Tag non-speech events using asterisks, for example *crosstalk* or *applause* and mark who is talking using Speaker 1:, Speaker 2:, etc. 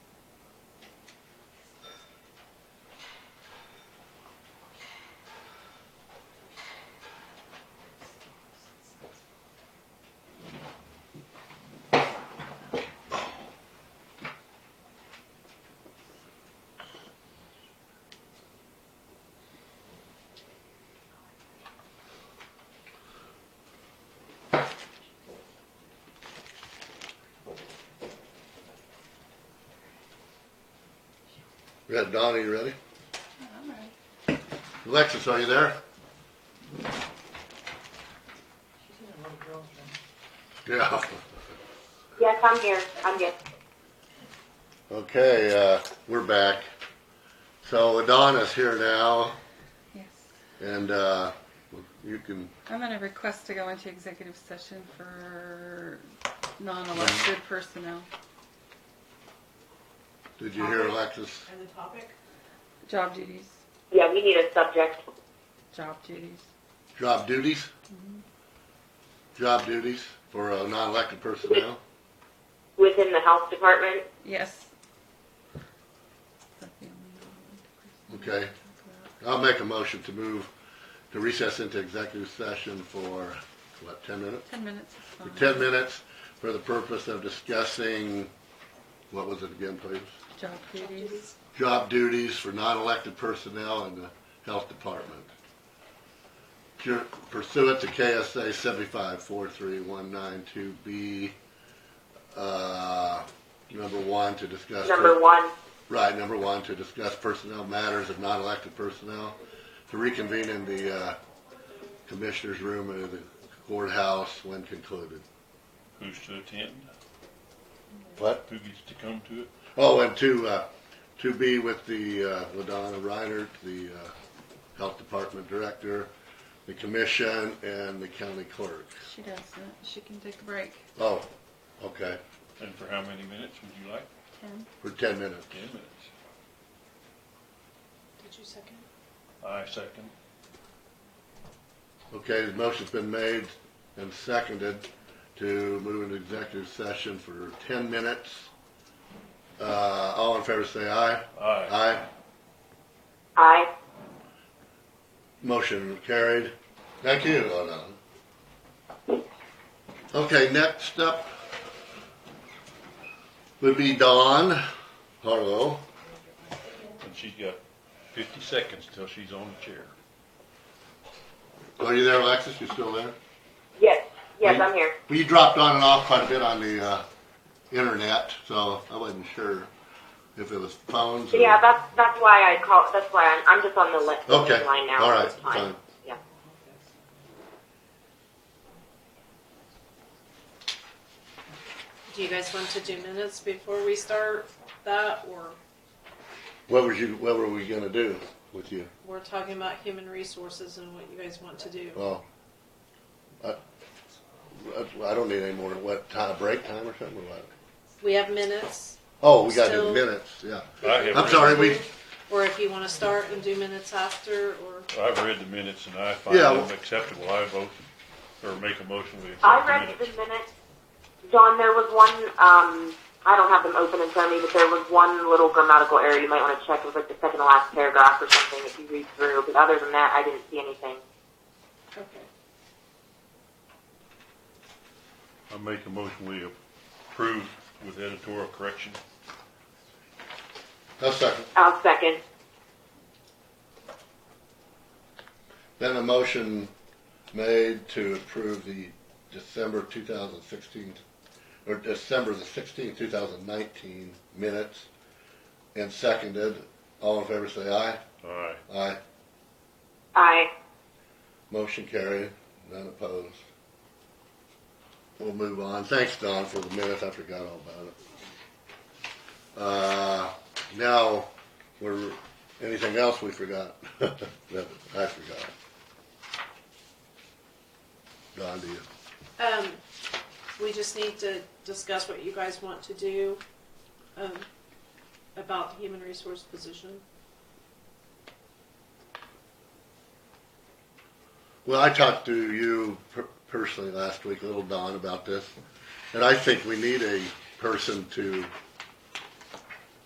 Speaker 1: We got Donnie, you ready?
Speaker 2: I'm ready.
Speaker 1: Alexis, are you there?
Speaker 2: She's in a little girl's room.
Speaker 1: Yeah.
Speaker 3: Yes, I'm here. I'm good.
Speaker 1: Okay, uh, we're back. So Donna's here now,
Speaker 4: Yes.
Speaker 1: and uh, you can,
Speaker 4: I'm gonna request to go into executive session for non-elected personnel,
Speaker 1: did you hear Alexis?
Speaker 2: And the topic?
Speaker 4: job duties,
Speaker 3: Yeah, we need a subject.
Speaker 4: job duties.
Speaker 1: Job duties? Job duties for uh, non-elected personnel?
Speaker 3: Within the health department,
Speaker 4: Yes. That's the only non-elected
Speaker 1: Okay.
Speaker 4: person I'll talk about.
Speaker 1: I'll make a motion to move, to recess into executive session for, what, ten minutes?
Speaker 4: Ten minutes is fine.
Speaker 1: For ten minutes for the purpose of discussing, what was it again, please?
Speaker 4: Job duties.
Speaker 1: Job duties for non-elected personnel in the health department. Cur- Pursuant to KSA seventy-five four three one nine two B, uh, number one, to discuss.
Speaker 3: number one.
Speaker 1: Right, number one, to discuss personnel matters of non-elected personnel, to reconvene in the uh, commissioner's room in the courthouse when concluded.
Speaker 5: Who's to attend?
Speaker 1: What?
Speaker 5: Who gets to come to it?
Speaker 1: Oh, and to, uh, to be with the, uh, Ladonna Reinert, the uh, Health Department Director, the commission, and the county clerk.
Speaker 4: She doesn't. She can take a break.
Speaker 1: Oh, okay,
Speaker 5: And for how many minutes would you like?
Speaker 4: Ten.
Speaker 1: for ten minutes.
Speaker 5: Ten minutes.
Speaker 2: Did you second?
Speaker 5: I second.
Speaker 1: Okay, the motion's been made and seconded to move into executive session for ten minutes. Uh, all in favor say aye.
Speaker 5: Aye.
Speaker 1: Aye.
Speaker 3: Aye.
Speaker 1: Motion carried. Thank you, Lona. Okay, next up would be Dawn Harlow.
Speaker 5: And she's got fifty seconds till she's on the chair.
Speaker 1: Are you there, Alexis? You still there?
Speaker 3: Yes. Yes,
Speaker 1: Wait.
Speaker 3: I'm here.
Speaker 1: Well, you dropped on and off quite a bit on the uh, internet, so I wasn't sure if it was phones. or-
Speaker 3: Yeah, that's that's why I call. That's why I'm, I'm just on the li-
Speaker 1: Okay.
Speaker 3: line now.
Speaker 1: All right.
Speaker 3: It's fine.
Speaker 1: Fine.
Speaker 3: Yeah.
Speaker 6: Do you guys want to do minutes before we start that, or
Speaker 1: What was you? What were we gonna do with you?
Speaker 6: we're talking about human resources and what you guys want to do?
Speaker 1: Well, I, I don't need any more. What time? Break time or something? Or what?
Speaker 6: We have minutes,
Speaker 1: Oh, we got to do
Speaker 6: Still-
Speaker 1: minutes. Yeah.
Speaker 5: I have
Speaker 1: I'm sorry. We
Speaker 6: or if you want to start and do minutes after, or
Speaker 5: I've read the minutes and I find
Speaker 1: Yeah.
Speaker 5: them acceptable. I vote, or make a motion we
Speaker 3: I
Speaker 5: accept the
Speaker 3: read
Speaker 5: minutes.
Speaker 3: the minutes. John, there was one. Um, I don't have them open in front of me, but there was one little grammatical error you might want to check. It was like the second to last paragraph or something if you read through. But other than that, I didn't see anything.
Speaker 6: okay,
Speaker 5: I make a motion we approve with editorial correction.
Speaker 1: a second.
Speaker 3: I'll second.
Speaker 1: Then a motion made to approve the December 2016 or December the 16th, 2019 minutes, and seconded. All in favor, say aye.
Speaker 5: Aye.
Speaker 1: Aye.
Speaker 3: Aye.
Speaker 1: Motion carried, none opposed. We'll move on. Thanks, Don, for the minutes. I forgot all about it. Uh, now, we're, anything else we forgot? *laughs* That I forgot. Don, do you?
Speaker 6: um, we just need to discuss what you guys want to do, um, about the human resource position.
Speaker 1: Well, I talked to you per- personally last week, little Don, about this, and I think we need a person to